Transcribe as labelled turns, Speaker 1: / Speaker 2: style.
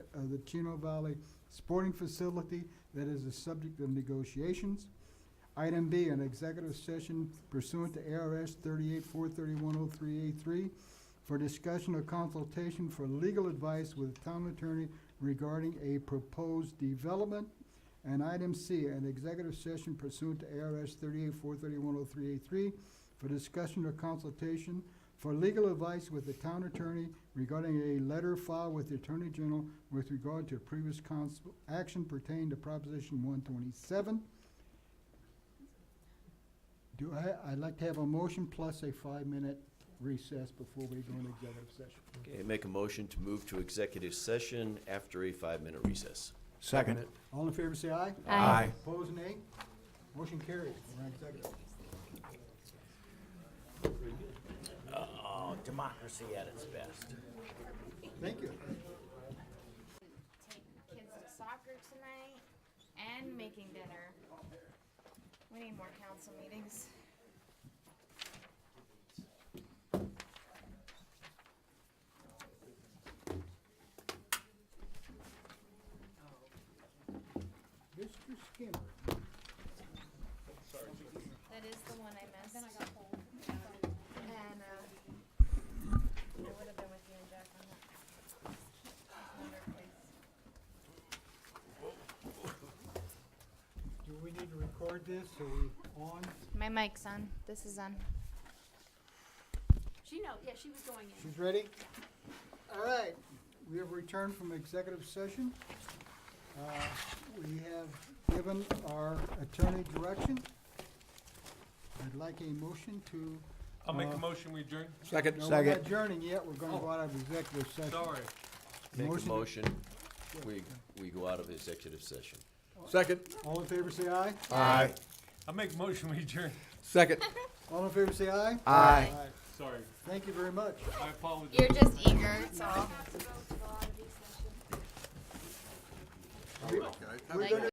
Speaker 1: of the Chino Valley Sporting Facility that is the subject of negotiations. Item B, an executive session pursuant to ARS thirty-eight four thirty-one oh three eight three for discussion or consultation for legal advice with town attorney regarding a proposed development. And item C, an executive session pursuant to ARS thirty-eight four thirty-one oh three eight three for discussion or consultation for legal advice with the town attorney regarding a letter filed with the Attorney General with regard to previous council action pertaining to Proposition one twenty-seven. Do I, I'd like to have a motion plus a five-minute recess before we go into executive session.
Speaker 2: Okay, make a motion to move to executive session after a five-minute recess.
Speaker 3: Second it.
Speaker 1: All in favor, say aye.
Speaker 4: Aye.
Speaker 1: Opposed, nay. Motion carries. We're in executive.
Speaker 2: Oh, democracy at its best.
Speaker 1: Thank you.
Speaker 4: take kids to soccer tonight and making dinner. We need more council meetings.
Speaker 1: Mr. Skinner.
Speaker 4: That is the one I missed. Then I got cold. And, uh, I would have been with you and Jeff on that. Another place.
Speaker 1: Do we need to record this? Are we on?
Speaker 4: My mic's on. This is on.
Speaker 5: She know, yeah, she was going in.
Speaker 1: She's ready? All right, we have returned from executive session. Uh, We have given our attorney direction. I'd like a motion to.
Speaker 6: I'll make
Speaker 1: Uh,
Speaker 6: a motion, we adjourn.
Speaker 3: Second.
Speaker 1: No, we're not
Speaker 3: Second.
Speaker 1: adjourning yet, we're gonna go out of executive session.
Speaker 6: Sorry.
Speaker 2: Make a
Speaker 1: Motion.
Speaker 2: motion, we, we go out of executive session.
Speaker 3: Second.
Speaker 1: All in favor, say aye.
Speaker 3: Aye.
Speaker 6: I'll make a motion, we adjourn.
Speaker 3: Second.
Speaker 1: All in favor, say aye.
Speaker 3: Aye.
Speaker 6: Sorry,
Speaker 1: Thank you very much.
Speaker 6: I apologize.
Speaker 4: You're just eager, it's all.
Speaker 1: We're gonna